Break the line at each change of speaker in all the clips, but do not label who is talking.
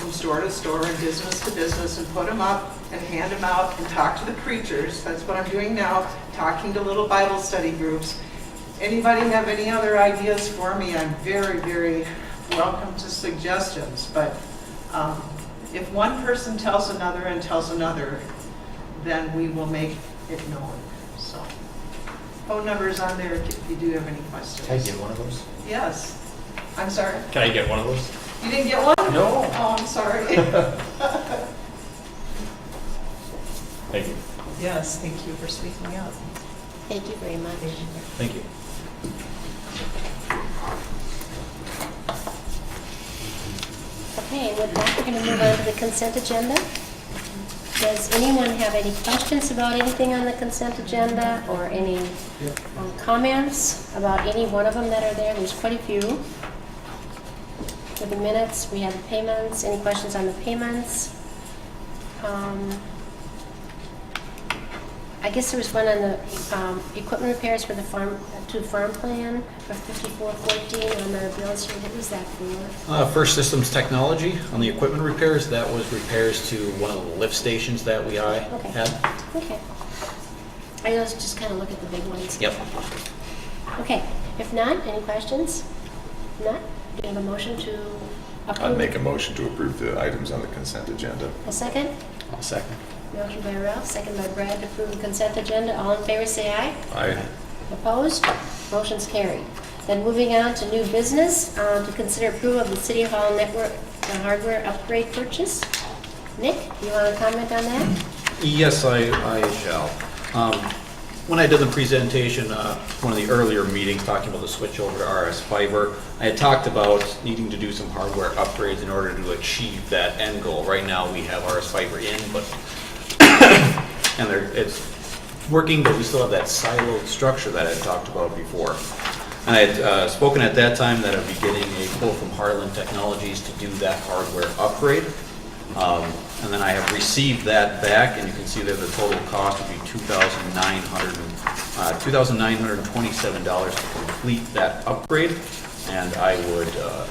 store to store and business to business and put them up and hand them out and talk to the preachers. That's what I'm doing now, talking to little Bible study groups. Anybody have any other ideas for me? I'm very, very welcome to suggestions, but um, if one person tells another and tells another, then we will make it known, so. Phone number's on there if you do have any questions.
Can I get one of those?
Yes. I'm sorry.
Can I get one of those?
You didn't get one?
No.
Oh, I'm sorry.
Thank you.
Yes, thank you for speaking up.
Thank you very much.
Thank you.
Okay, with that, we're going to move on to the consent agenda. Does anyone have any questions about anything on the consent agenda or any um, comments about any one of them that are there? There's quite a few. For the minutes, we have the payments. Any questions on the payments? Um, I guess there was one on the um, equipment repairs for the farm, to farm plan for 5414 on the bill sheet. What was that for?
Uh, First Systems Technology, on the equipment repairs, that was repairs to one of the lift stations that we I
Okay.
had.
Okay. I also just kind of look at the big ones.
Yep.
Okay, if not, any questions? If Not? Do you have a motion to approve?
I'd make a motion to approve the items on the consent agenda.
A second?
I'll second.
Motion by Ralph, second by Brad to approve the consent agenda. All in favor, say aye.
Aye.
Opposed? Motion's carried. Then moving on to new business, uh, to consider approval of the City Hall Network uh, hardware upgrade purchase. Nick, you want to comment on that?
Yes, I, I shall. Um, When I did the presentation, uh, one of the earlier meetings, talking about the switch over to RS fiber, I had talked about needing to do some hardware upgrades in order to achieve that end goal. Right now, we have RS fiber in, but, and there, it's working, but we still have that siloed structure that I talked about before. And I had uh, spoken at that time that I'd be getting a quote from Harlan Technologies to do that hardware upgrade. Um, And then I have received that back, and you can see that the total cost would be $2,900 uh, $2,927 to complete that upgrade. And I would, uh,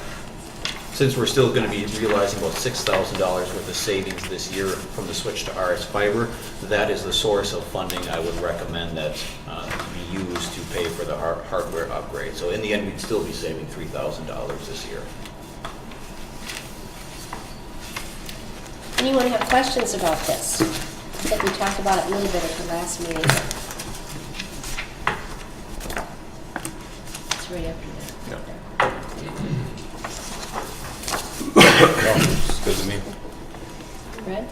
since we're still going to be realizing about $6,000 worth of savings this year from the switch to RS fiber, that is the source of funding I would recommend that uh, be used to pay for the har- hardware upgrade. So in the end, we'd still be saving $3,000 this year.
Anyone have questions about this? I think we talked about it a little bit at the last meeting. It's right up here.
Good to me.
Red?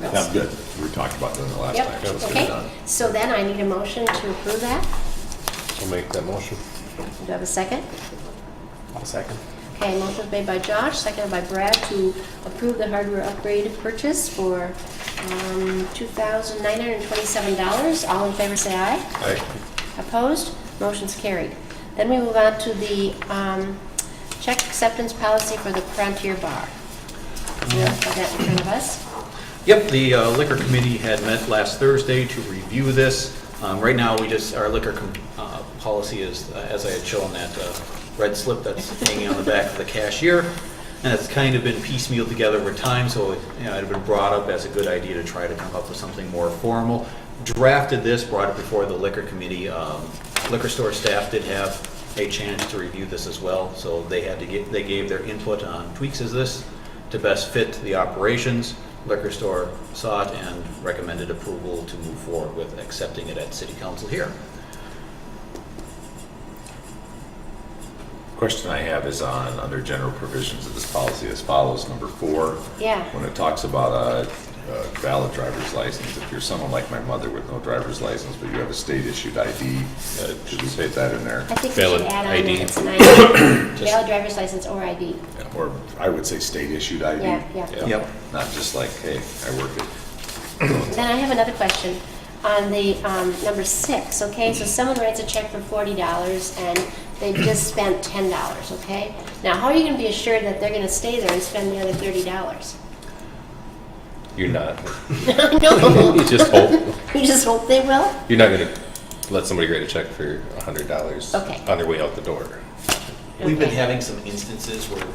Yeah, I'm good. We talked about that in the last time.
Yep, okay. So then I need a motion to approve that.
I'll make that motion.
Do you have a second?
I'll second.
Okay, motion made by Josh, seconded by Brad to approve the hardware upgrade purchase for um, $2,927. All in favor, say aye.
Aye.
Opposed? Motion's carried. Then we move on to the um, check acceptance policy for the Frontier Bar. Do you have that in front of us?
Yep, the uh, liquor committee had met last Thursday to review this. Um, Right now, we just, our liquor com- uh, policy is, uh, as I had shown, that uh, red slip that's hanging on the back of the cashier, and it's kind of been piecemealed together over time, so it you know, it had been brought up as a good idea to try to come up with something more formal. Drafted this, brought it before the liquor committee. Um, Liquor store staff did have a chance to review this as well, so they had to get, they gave their input on tweaks as this to best fit the operations. Liquor store saw it and recommended approval to move forward with accepting it at city council here.
Question I have is on, under general provisions of this policy as follows, number four.
Yeah.
When it talks about a a valid driver's license, if you're someone like my mother with no driver's license, but you have a state issued ID, uh, should we say that in there?
I think we should
Valid
add on that
ID.
it's an ID. Valid driver's license or ID.
Or I would say state issued ID.
Yeah, yeah.
Yep.
Not just like, hey, I work at,
Then I have another question on the um, number six, okay? So someone writes a check for forty dollars and they just spent ten dollars, okay? Now, how are you gonna be assured that they're gonna stay there and spend the other thirty dollars?
You're not.
No,
You just hope.
you just hope they will?
You're not going to let somebody write a check for $100
Okay.
on their way out the door.
We've been
Okay.
having some instances where